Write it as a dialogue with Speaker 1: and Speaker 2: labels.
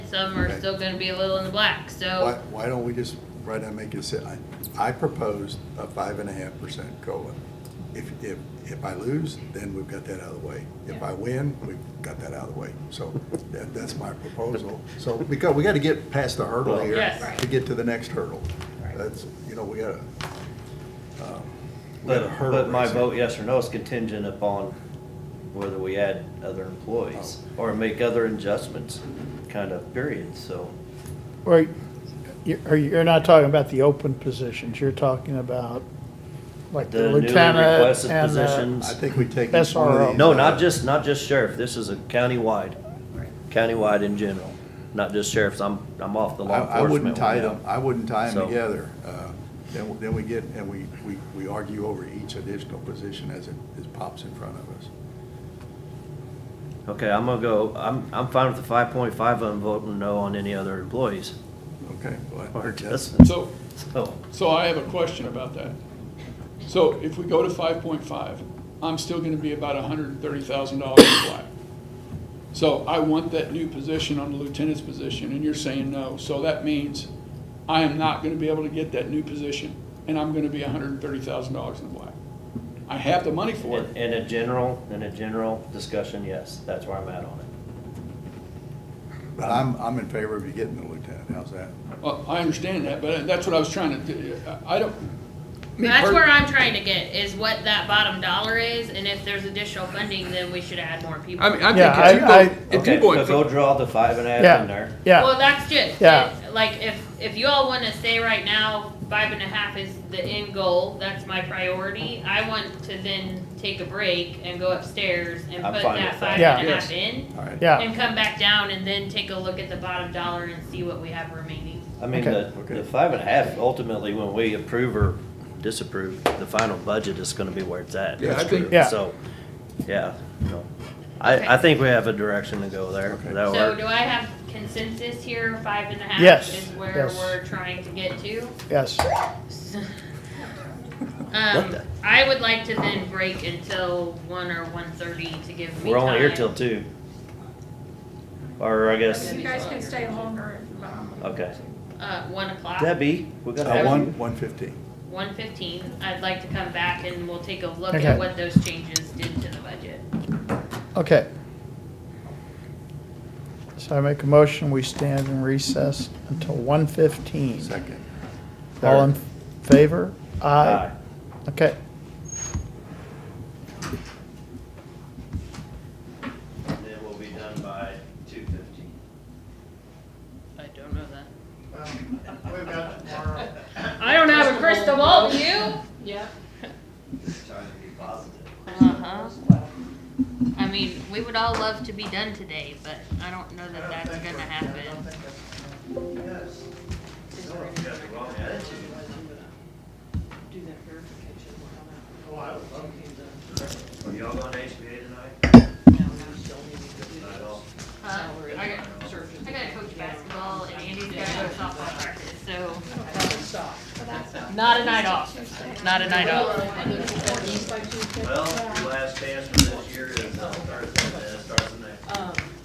Speaker 1: some are
Speaker 2: Okay.
Speaker 1: still gonna be a little in the black,
Speaker 2: Why,
Speaker 1: so,
Speaker 2: why don't we just, right now, make it sit, I, I proposed a five and a half percent COLA. If, if, if I lose, then we've got that out of the way. If I win, we've got that out of the way. So that, that's my proposal. So, because we gotta get past the hurdle here
Speaker 1: Yes.
Speaker 2: to get to the next hurdle.
Speaker 3: Right.
Speaker 2: That's, you know, we gotta, um, we gotta
Speaker 4: But,
Speaker 2: hurdle.
Speaker 4: but my
Speaker 2: race here.
Speaker 4: vote yes or no is contingent upon whether we add other employees
Speaker 2: Oh.
Speaker 4: or make other adjustments, kind of period, so.
Speaker 5: Or, you- or you're not talking about the open positions, you're talking about like the
Speaker 4: The newly
Speaker 5: lieutenant
Speaker 4: requested
Speaker 5: and the.
Speaker 4: positions.
Speaker 2: I think we take. each
Speaker 5: That's
Speaker 2: one of
Speaker 5: our-
Speaker 2: these,
Speaker 4: No,
Speaker 2: uh,
Speaker 4: not just, not just sheriff, this is a countywide, countywide in general, not just sheriffs, I'm, I'm off the
Speaker 2: I,
Speaker 4: law
Speaker 2: I
Speaker 4: enforcement.
Speaker 2: wouldn't tie
Speaker 4: one now.
Speaker 2: them, I wouldn't tie
Speaker 4: So-
Speaker 2: them together. Uh, Then, we- then we get, and we, we, we argue over each additional position as it, as pops in front of us.
Speaker 4: Okay, I'm gonna go, I'm, I'm fine with the five point five, I'm voting no on any other employees
Speaker 2: Okay? well,
Speaker 4: or
Speaker 2: that's-
Speaker 4: adjustments,
Speaker 6: So,
Speaker 4: so.
Speaker 6: so I have a question about that. So if we go to five point five, I'm still gonna be about hundred and thirty thousand dollars in black. So I want that new position on the lieutenant's position, and you're saying no, so that means I am not gonna be able to get that new position, and I'm gonna be hundred and thirty thousand dollars in the black. I have the money for
Speaker 4: In,
Speaker 6: it,
Speaker 4: in a general, in a general discussion, yes, that's where I'm at on it.
Speaker 2: But I'm, I'm in favor of you getting the lieutenant, how's that?
Speaker 6: well, I understand that, but that's what I was trying to, do. I I don't. me
Speaker 1: that's
Speaker 6: per-
Speaker 1: where I'm trying to get, is what that bottom dollar is, and if there's additional funding, then we should add more people.
Speaker 6: I mean, I'm
Speaker 5: Yeah,
Speaker 6: thinking,
Speaker 5: I-
Speaker 6: if you go, if
Speaker 4: Okay, so
Speaker 6: you're going,
Speaker 4: go
Speaker 6: for-
Speaker 4: draw the five and a half in
Speaker 5: Yeah,
Speaker 4: there.
Speaker 1: Well,
Speaker 5: yeah,
Speaker 1: that's just,
Speaker 5: Yeah.
Speaker 1: it. like, if, if you all wanna say right now, five and a half is the end goal, that's my priority, I want to then take a break and go upstairs and
Speaker 4: I'm
Speaker 1: put
Speaker 4: fine
Speaker 1: that
Speaker 4: with
Speaker 1: five
Speaker 5: that.
Speaker 1: and a
Speaker 6: Yeah.
Speaker 1: half in,
Speaker 2: All right.
Speaker 5: yeah,
Speaker 1: and come back down and then take a look at the bottom dollar and see what we have remaining.
Speaker 4: I mean,
Speaker 5: Okay.
Speaker 4: the, the five and a half, ultimately, when we approve or disapprove, the final budget is gonna be where it's at.
Speaker 6: Yeah, I think-
Speaker 5: Yeah.
Speaker 4: So, yeah, no.
Speaker 1: Okay.
Speaker 4: I, I think we have a direction to go there.
Speaker 2: Okay.
Speaker 4: That'll
Speaker 1: So
Speaker 4: work.
Speaker 1: do I have consensus here, five and a half?
Speaker 5: Yes,
Speaker 1: Is where
Speaker 5: yes.
Speaker 1: we're trying to get to?
Speaker 5: yes.
Speaker 1: Um,
Speaker 4: the-
Speaker 1: I would like to then break until one or one thirty to give me time.
Speaker 4: We're only here till two. Or I guess,
Speaker 3: You guys can stay longer um, if you want.
Speaker 4: okay.
Speaker 1: Uh, one o'clock.
Speaker 4: Debbie, we're gonna
Speaker 2: Uh,
Speaker 4: have
Speaker 2: one,
Speaker 4: you.
Speaker 2: one fifteen.
Speaker 1: One fifteen, I'd like to come back and we'll take a look
Speaker 5: Okay.
Speaker 1: at what those changes did to the budget.
Speaker 5: Okay. So I make a motion, we stand in recess until 1:15.
Speaker 2: Second.
Speaker 5: All in favor?
Speaker 4: Aye.
Speaker 5: Okay.
Speaker 4: And then we'll be done by two fifteen.
Speaker 1: I don't know that.
Speaker 7: We've got tomorrow.
Speaker 1: I don't have a crystal ball, do you?
Speaker 3: Yeah.
Speaker 4: Just trying to be positive.
Speaker 1: Uh-huh. I mean, we would all love to be done today, but I don't know that that's gonna happen.
Speaker 7: Yes.
Speaker 8: do that verification, we'll have that.
Speaker 7: Oh, I would love
Speaker 4: Are y'all going to HBA tonight? Not at all.
Speaker 1: Huh? I got, I gotta coach basketball and Andy's gotta go to softball practice, so. Not a night off, not a night off.
Speaker 4: Well, your last chance for this year is on Thursday.